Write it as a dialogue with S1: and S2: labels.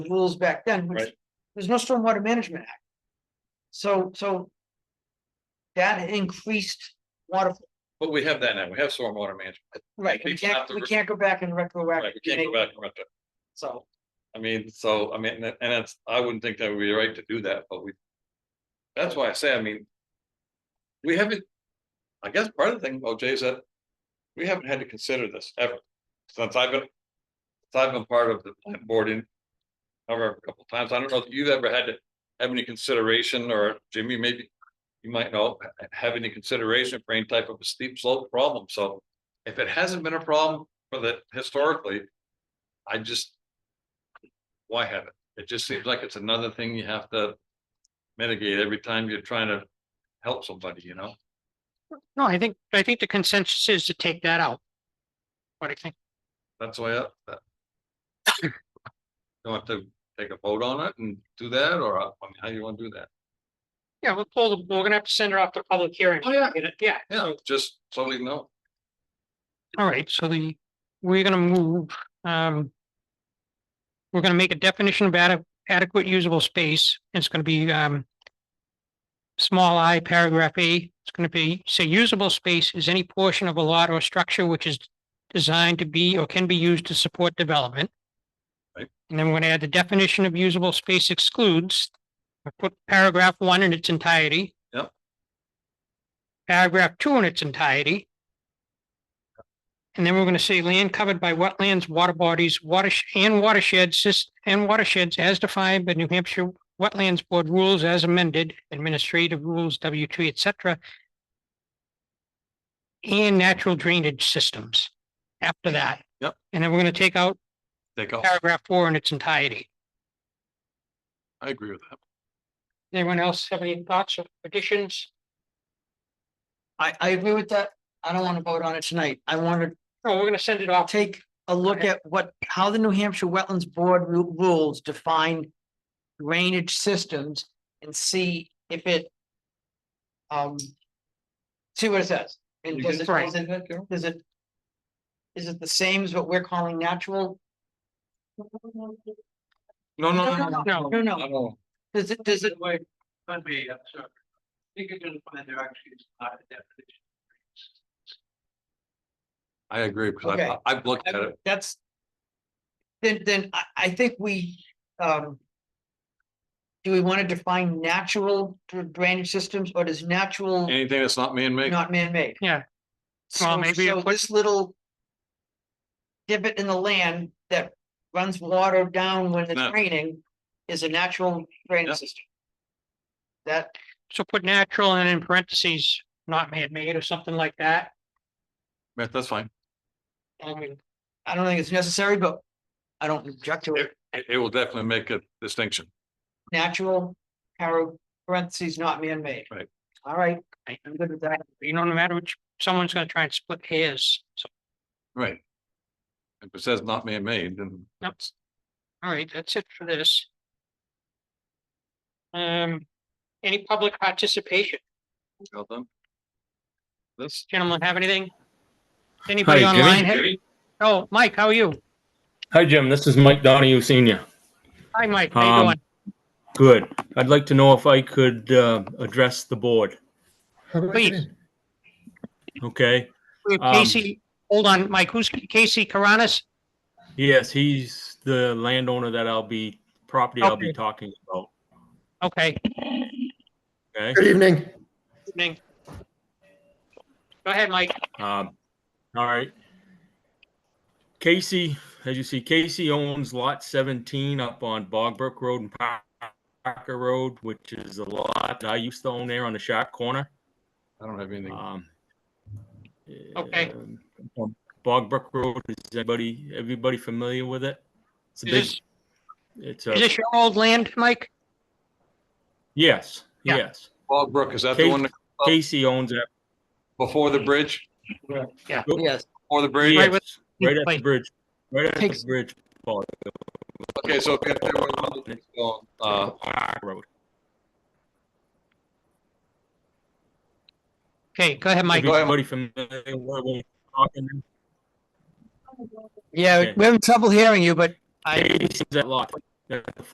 S1: rules back then, which
S2: Right.
S1: there's no stormwater management act. So, so. That increased water,
S2: But we have that now, we have stormwater management,
S1: right, we
S2: People have
S1: can't,
S2: to
S1: we
S2: re-
S1: can't go back and retroactive.
S2: right, we can't go back and rent it.
S1: So,
S2: I mean, so, I mean, and that's, I wouldn't think that would be right to do that, but we. That's why I say, I mean. We haven't, I guess part of the thing, about Jay, is that we haven't had to consider this ever, since I've been. Since I've been part of the planning board in. However, a couple times, I don't know if you've ever had to have any consideration, or Jimmy, maybe. You might know, ha- have any consideration for any type of a steep slope problem, so if it hasn't been a problem for the historically. I just, why have it? It just seems like it's another thing you have to mitigate every time you're trying to help somebody, you know?
S3: No, I think, I think the consensus is to take that out. What do you think?
S2: That's why. I- that- Don't have to take a vote on it and do that, or uh, I mean, how you wanna do that?
S3: Yeah, we'll pull, the- we're gonna have to send her off to public hearing.
S1: Oh,
S2: yeah.
S3: Yeah,
S2: Yeah, just totally no.
S3: all right, so the, we're gonna move, um. We're gonna make a definition of ade- adequate usable space. It's gonna be, um. Small I paragraph A, it's gonna be, say usable space is any portion of a lot or structure which is designed to be or can be used to support development.
S2: Right.
S3: And then we're gonna add the definition of usable space excludes. I Put paragraph one in its entirety.
S2: Yep.
S3: Paragraph two in its entirety. And then we're gonna say land covered by wetlands, water bodies, watersh and watersheds, sys- and watersheds as defined by New Hampshire Wetlands Board rules as amended, administrative rules, W two, et cetera. And natural drainage systems after that.
S2: Yep.
S3: And then we're gonna take out
S2: Take off.
S3: paragraph four in its entirety.
S2: I agree with that.
S3: Anyone else have any thoughts or additions?
S1: I, I agree with that. I don't wanna vote on it tonight. I wanna
S3: No, we're gonna send it off.
S1: take a look
S3: Okay.
S1: at what, how the New Hampshire Wetlands Board ru- rules define. Drainage systems and see if it. Um. See what it says. And
S2: You
S1: does
S2: can-
S1: it, does it Is it? Is it the same as what we're calling natural?
S2: No, no, no, no.
S3: no.
S1: No,
S2: I
S1: no,
S2: don't-
S1: does it, does it,
S4: But me, I'm sorry. I think you're gonna find there actually is not a definition.
S2: I agree, because
S1: Okay.
S2: I, I've looked at it.
S1: that's. Then, then I, I think we, um. Do we want to define natural dr- drainage systems or does natural
S2: Anything that's not man-made,
S1: not man-made?
S3: Yeah.
S1: So,
S3: Well,
S1: so
S3: maybe it would-
S1: this little. Divot in the land that runs water down when
S2: No.
S1: it's raining is a natural
S2: Yeah.
S1: drainage system. That,
S3: So put natural and in parentheses, not man-made or something like that.
S2: Yeah, that's fine.
S3: I mean,
S1: I don't think it's necessary, but I don't object to it.
S2: It, it will definitely make a distinction.
S1: Natural, arrow, parentheses, not man-made.
S2: Right.
S1: All right,
S3: Right.
S1: I'm good with that.
S3: you know, no matter which, someone's gonna try and split hairs. So,
S2: Right. If it says not man-made, then
S3: Yep.
S2: that's
S3: all right, that's it for this. Um, any public participation?
S2: well done. This.
S3: Gentlemen, have anything? Anybody
S5: Jimmy.
S3: online? have- Oh, Mike, how are you?
S5: Hi, Jim. This is Mike Donahue Senior.
S3: Hi, Mike. How you
S5: Um,
S3: doing?
S5: Good. I'd like to know if I could uh, address the board.
S3: Please,
S5: Okay.
S3: we have
S5: um,
S3: Casey, hold on, Mike, who's Casey Karanis?
S5: Yes, he's the landowner that I'll be property I'll be
S3: Okay.
S5: talking about.
S3: Okay.
S5: Okay.
S6: Good evening.
S3: Evening. Go ahead, Mike.
S5: Um, all right. Casey, as you see, Casey owns lot seventeen up on Bogbrook Road and Par- Parker Road, which is a lot that I used to own there on the sharp corner.
S2: I don't have anything.
S5: Um.
S3: Okay.
S5: um, Bogbrook Road, is anybody, everybody familiar with it? It's a
S3: Is
S5: big,
S3: this-
S5: it's
S3: Is
S5: a,
S3: this your old land, Mike?
S5: yes,
S3: Yeah.
S5: yes.
S2: Bog Brook, is that the
S5: Kate-
S2: one that-
S5: Casey owns it,
S2: before the bridge,
S1: Yes,
S2: before the bridge?
S3: Yeah. with-
S5: yes, right at the
S3: Wait.
S5: bridge, right at
S1: Takes-
S5: the bridge, Bog
S2: Okay, so. if there was- Uh,
S5: Parker Road.
S3: Okay, go ahead, Mike.
S2: Go ahead,
S5: Everybody familiar with what we're talking about?
S1: yeah,
S5: Okay.
S1: we're having trouble hearing you, but I,
S5: Casey's that lot. that the